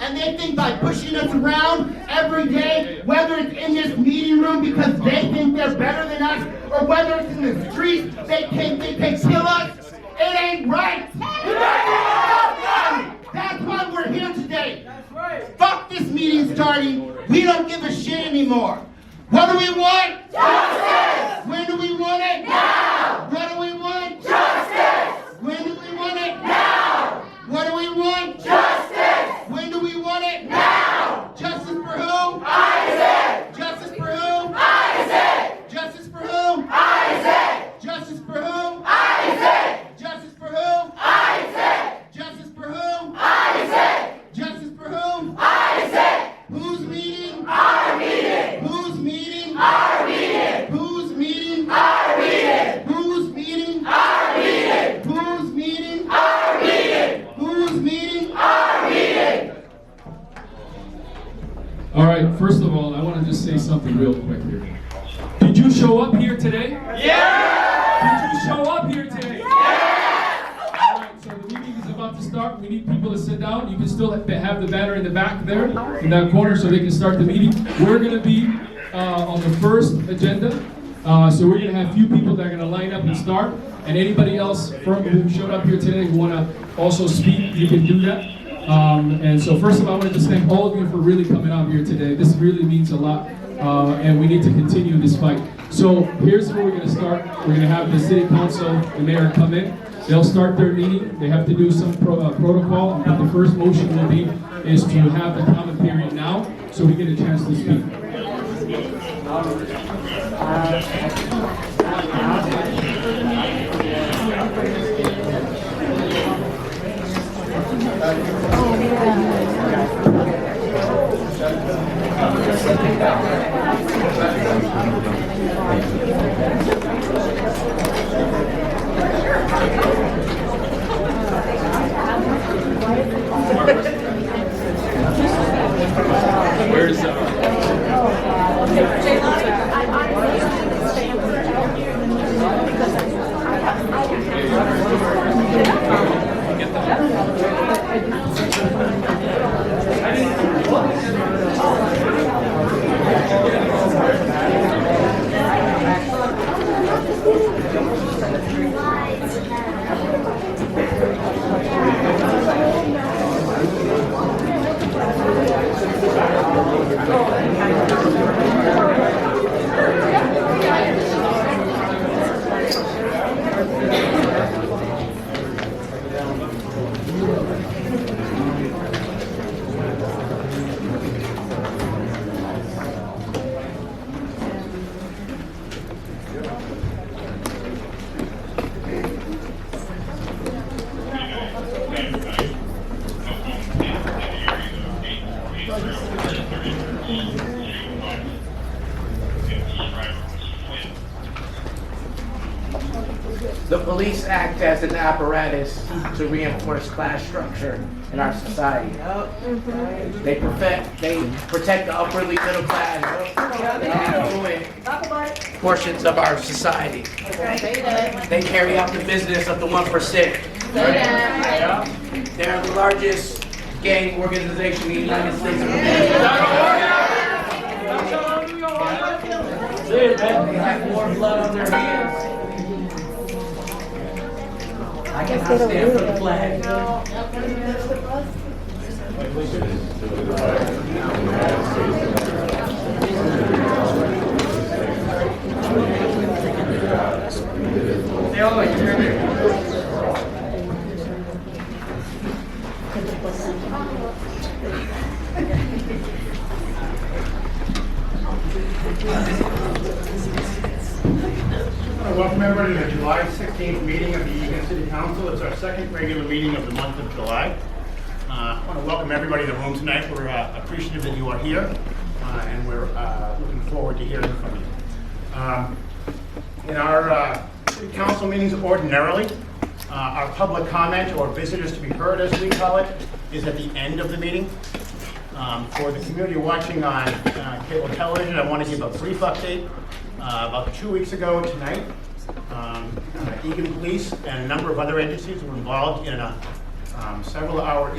And they think by pushing us around every day, whether it's in this meeting room because they think they're better than us, or whether it's in the streets, they think they can kill us. It ain't right. That's why we're here today. Fuck this meeting starting. We don't give a shit anymore. What do we want? Justice! When do we want it? Now! What do we want? Justice! When do we want it? Now! What do we want? Justice! When do we want it? Now! Justice for who? Isaac! Justice for who? Isaac! Justice for who? Isaac! Justice for who? Isaac! Justice for who? Isaac! Justice for who? Justice for whom? Isaac! Who's meeting? Our meeting! Who's meeting? Our meeting! Who's meeting? Our meeting! Who's meeting? Our meeting! Who's meeting? Our meeting! Who's meeting? All right, first of all, I want to just say something real quick here. Did you show up here today? Yeah! Did you show up here today? Yeah! All right, so the meeting is about to start. We need people to sit down. You can still have have the banner in the back there, in that corner, so they can start the meeting. We're going to be uh, on the first agenda, Uh, so we're going to have few people that are going to line up and start. And anybody else from who showed up here today who want to also speak, you can do that. Um, and so first of all, I want to just thank all of you for really coming out here today. This really means a lot, uh, and we need to continue this fight. So here's where we're going to start. We're going to have the city council, the mayor come in. They'll start their meeting. They have to do some pro- uh, protocol, but the first motion will be is to have the comment period now, so we get a chance to speak. The police act as an apparatus to reinforce class structure in our society. They perfect, they protect the upwardly middle class, the affluent portions of our society. They carry out the business of the one percent. They're the largest gang organization in the United States of America. They have more blood on their hands I cannot stand for the flag. Uh, Welcome everybody to the July 16th meeting of the Eagan City Council. It's our second regular meeting of the month of July. Uh, I want to welcome everybody to the room tonight. We're uh, appreciative that you are here, uh, and we're uh, looking forward to hearing from you. Um, In our uh, city council meetings ordinarily, uh, our public comment or visitors to be heard, as we call it, is at the end of the meeting. Um, For the community watching on uh, cable television, I want to give a brief update. Uh, About two weeks ago tonight, um, uh, Eagan Police and a number of other agencies were involved in a um, several-hour